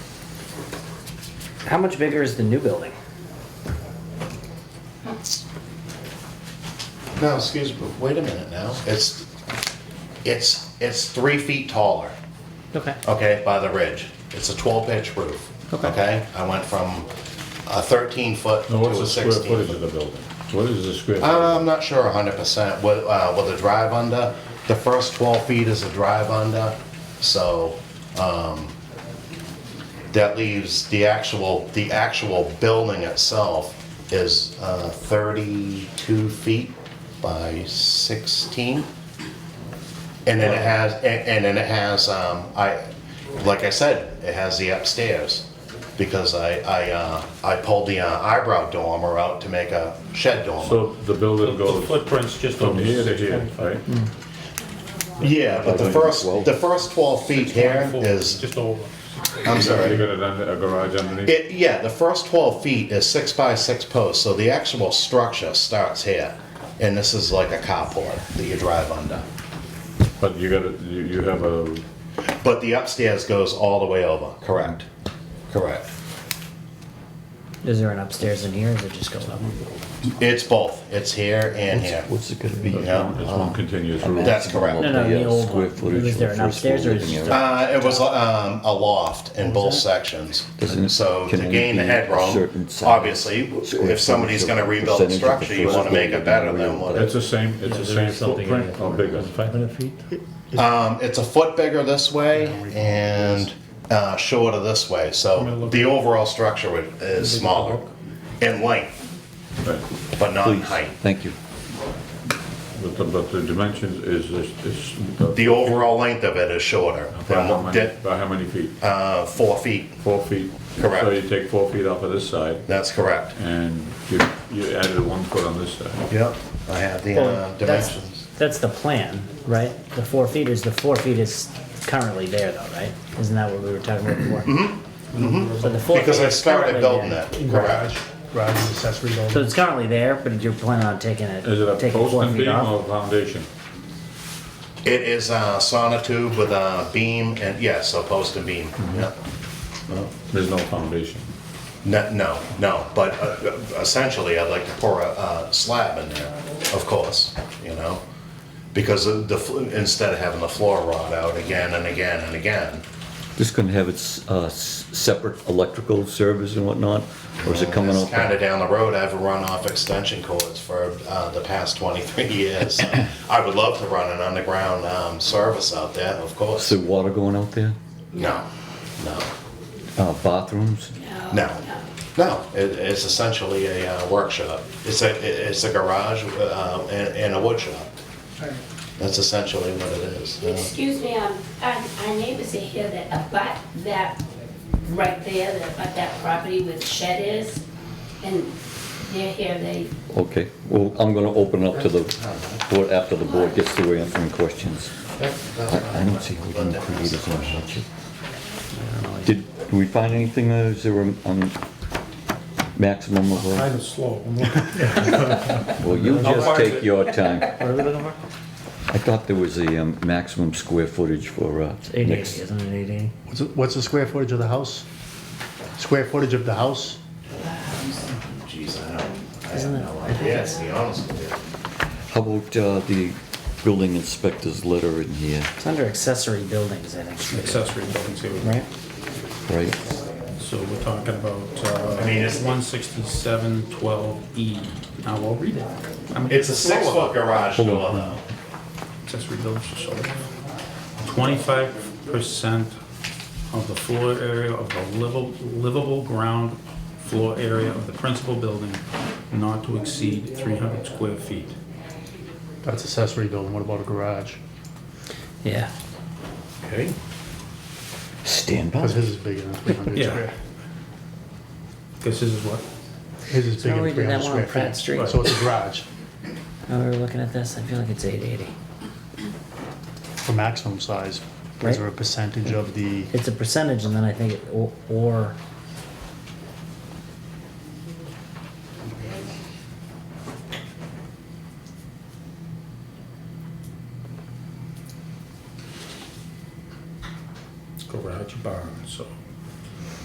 How much bigger is the new building? No, excuse me, wait a minute now. It's, it's, it's three feet taller, Okay. okay, by the ridge. It's a 12-inch roof, Okay. okay? I went from a 13-foot to Now, what's a the square footage of 16-foot. the building? What is the square? Uh, footage? I'm not sure 100% what, uh, what the drive under, the first 12 feet is a drive under, so, um, that leaves the actual, the actual building itself is, uh, 32 feet by 16. And then it has, and, and then it has, um, I, like I said, it has the upstairs. Because I, I, uh, I pulled the uh, eyebrow dormer out to make a shed dormer. So the building The goes footprint's just from over here to here, 625. right? Mm. Yeah, but the Like when you first, slow. the first 12 feet here Full, is, Just over. I'm You sorry. got it under, a garage underneath? It, yeah, the first 12 feet is six by six posts, so the actual structure starts here. And this is like a carport that you drive under. But you got, a- you, you have a, But the upstairs goes all the way over, correct? Correct. Is there an upstairs in here? Or does it just go up? It's both, it's here and here. What's it gonna be? Yeah. it's one continuous roof. That's correct. No, no, Yeah, the old uh, square one. footage Was of there an first upstairs or floor is it living just area. Uh, it was um, a loft in both sections. Doesn't it- So to can it gain the be a headroom, certain size? obviously, Square if somebody's footage gonna or rebuild the percentage of the structure, you first wanna make floor it better living than area. what it It's the same, it's the same footprint or bigger? Five hundred feet? Uh, Um, it's a foot bigger this way and uh, shorter this way, so the overall structure would- is smaller in length, Right. but not in Please, height. thank you. But the, but the dimensions is, this- is. The overall length of it is shorter By than how what many, did, by how many feet? uh, four feet. Four feet? Correct. So you take four feet off of this side That's correct. and you, you added one foot on this side. Yep. I have the uh, Well, that's, dimensions. that's the plan, right? The four feet is, the four feet is currently there though, right? Isn't that what we were talking about before? Mm-hmm. So the four feet Because I is currently started building there. it, Garage, correct. garage and accessory So building. it's currently there, but you're planning on taking it, Is it a taking post four and feet beam off? or foundation? It is a sonotube with a beam and, yes, a post and beam, yeah. There's no foundation. No, no, no, but uh, essentially, I'd like to pour a, uh slab in there, of course, you know? Because of the, fl- instead of having the floor rot out again and again and again, Just gonna have its, uh, s- separate electrical service and whatnot, or is it coming it's up? kind of down the road, I've run off extension cords for uh, the past 23 years. I would love to run an underground um, service out there, of Is course. there water going out there? No, no, Uh, bathrooms? no, no, It- it's essentially a uh, workshop. It's a, it- it's a garage um, and and a wood shop. That's essentially what it is. yeah. Excuse me, um, our, our neighbors are here that abut that, right there, that abut that property where the shed is, and they're here, they, Okay, well, I'm gonna open up to the board after the board gets through answering questions. I I don't see how we can create as much. Did, did we find anything, uh, is there a, um, maximum of, uh, Kind of slow. well, you How just far is take it? your time. What are we looking for? I thought there was a um, maximum square footage for, uh, It's eighty, next, isn't it eighty? What's the- What's the square footage of the house? Square footage of the house? Jeez, I don't, I have Isn't it- no idea, to be honest with you. how about, uh, the building inspector's letter in here, It's under accessory buildings, I think, Accessory buildings here. right? right? So we're talking about, I mean, it's- uh, one sixty-seven twelve E. Now, we'll read it. I mean, It's a slower. six foot garage door Hold on. though. accessory buildings shall Twenty-five percent of the floor area of the livable, livable ground floor area of the principal building not to exceed three hundred square feet. That's accessory building, what about a garage? Yeah. Okay. Stand by. Because his is bigger than 300 Yeah. square. Guess this is what? His is bigger how we did than that one on 300 square Pratt feet. Street. So it's a garage Now we were looking at this, I feel like it's eight eighty. for maximum size. Right. Is there a percentage of the, It's a percentage and then I think, it- or, or